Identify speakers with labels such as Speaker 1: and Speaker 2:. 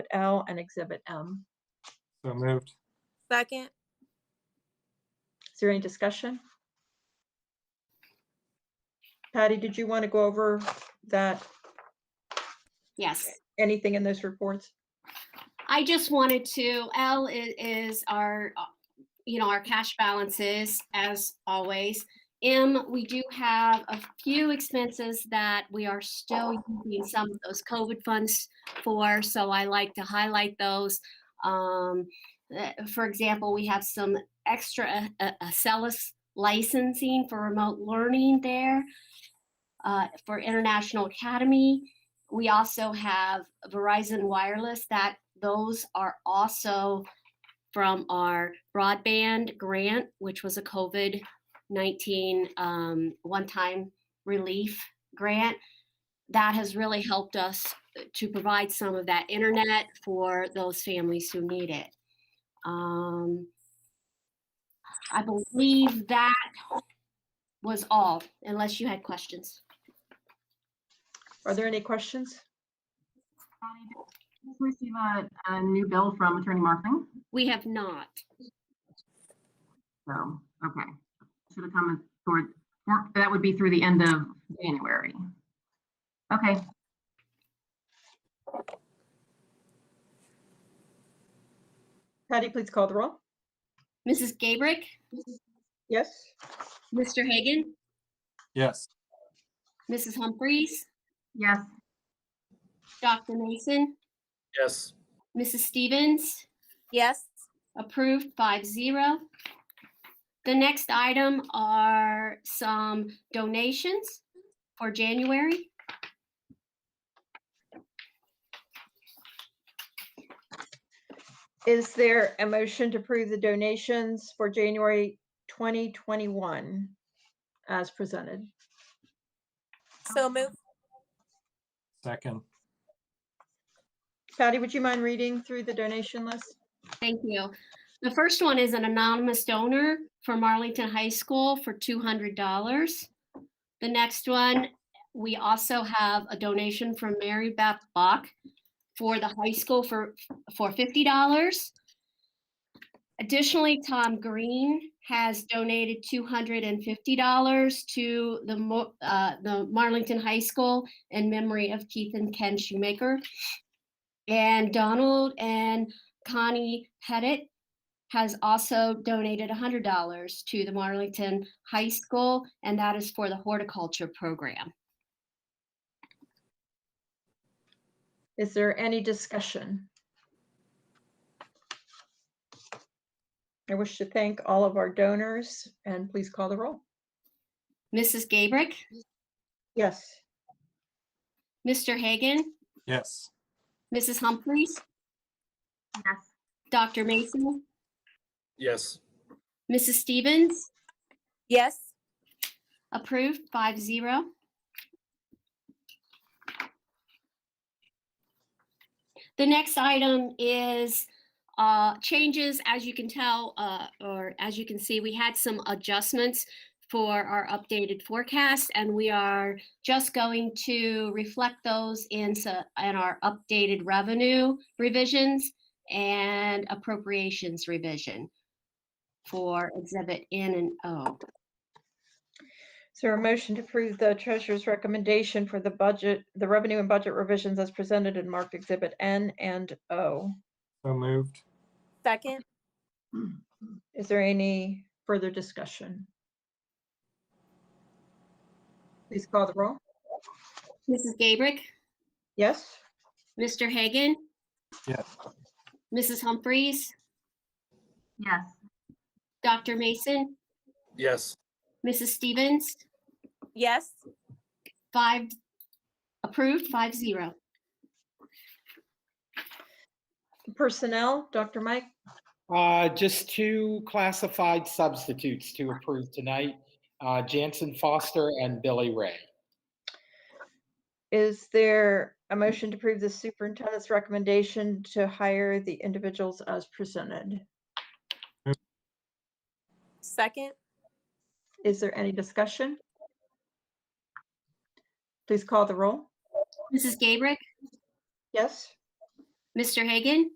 Speaker 1: L and Exhibit M.
Speaker 2: So moved.
Speaker 3: Second.
Speaker 1: Is there any discussion? Patty, did you want to go over that,
Speaker 4: Yes,
Speaker 1: anything in those reports?
Speaker 4: I just wanted to, L i- is our, uh, you know, our cash balances as always. M, we do have a few expenses that we are still using some of those COVID funds for, so I like to highlight those. Um, uh, For example, we have some extra uh, uh, Accelis licensing for remote learning there uh, for International Academy. We also have Verizon Wireless that those are also from our broadband grant, which was a COVID 19 um, one time relief grant. That has really helped us to provide some of that internet for those families who need it. Um, I believe that was all, unless you had questions.
Speaker 1: Are there any questions?
Speaker 5: Connie, did you Receive a, a new bill from Attorney Markling,
Speaker 4: We have not.
Speaker 5: so, okay. Should have come toward, or that would be through the end of January. Okay,
Speaker 1: Patty, please call the roll.
Speaker 4: Mrs. Gabrick,
Speaker 1: Yes?
Speaker 4: Mr. Hagan,
Speaker 2: Yes.
Speaker 4: Mrs. Humphries,
Speaker 5: yes,
Speaker 4: Dr. Mason,
Speaker 2: Yes.
Speaker 4: Mrs. Stevens,
Speaker 3: Yes.
Speaker 4: approved 5-0. The next item are some donations for January.
Speaker 1: Is there a motion to approve the donations for January 2021 as presented?
Speaker 3: So move.
Speaker 2: Second.
Speaker 1: Patty, would you mind reading through the donation list?
Speaker 4: Thank you. The first one is an anonymous donor from Arlington High School for two hundred dollars. The next one, we also have a donation from Mary Beth Bach for the high school for, for fifty dollars. Additionally, Tom Green has donated two hundred and fifty dollars to the Mo- uh, the Marlington High School in memory of Keith and Ken Shoemaker. And Donald and Connie Pettit has also donated $100 to the Marlington High School, and that is for the horticulture program.
Speaker 1: Is there any discussion? I wish to thank all of our donors and please call the roll.
Speaker 4: Mrs. Gabrick,
Speaker 1: Yes.
Speaker 4: Mr. Hagan,
Speaker 2: Yes.
Speaker 4: Mrs. Humphries,
Speaker 5: yes,
Speaker 4: Dr. Mason,
Speaker 2: Yes.
Speaker 4: Mrs. Stevens,
Speaker 3: Yes.
Speaker 4: approved 5-0. The next item is uh, changes, as you can tell, uh, or as you can see, we had some adjustments for our updated forecast, and we are just going to reflect those in, so- in our updated revenue revisions and appropriations revision for Exhibit N and O.
Speaker 1: Is there a motion to approve the treasurer's recommendation for the budget, the revenue and budget revisions as presented in marked exhibit N and O?
Speaker 2: So moved.
Speaker 3: Second.
Speaker 1: Is there any further discussion? Please call the roll.
Speaker 4: Mrs. Gabrick?
Speaker 1: Yes?
Speaker 4: Mr. Hagan?
Speaker 2: Yes.
Speaker 4: Mrs. Humphries,
Speaker 5: yes,
Speaker 4: Dr. Mason,
Speaker 2: Yes.
Speaker 4: Mrs. Stevens,
Speaker 3: Yes.
Speaker 4: five, approved, five zero.
Speaker 1: Personnel, Dr. Mike?
Speaker 6: Uh, Just two classified substitutes to approve tonight, uh, Jansen Foster and Billy Ray.
Speaker 1: Is there a motion to approve the superintendent's recommendation to hire the individuals as presented?
Speaker 3: Second.
Speaker 1: Is there any discussion? Please call the roll.
Speaker 4: Mrs. Gabrick,
Speaker 1: Yes?
Speaker 4: Mr. Hagan?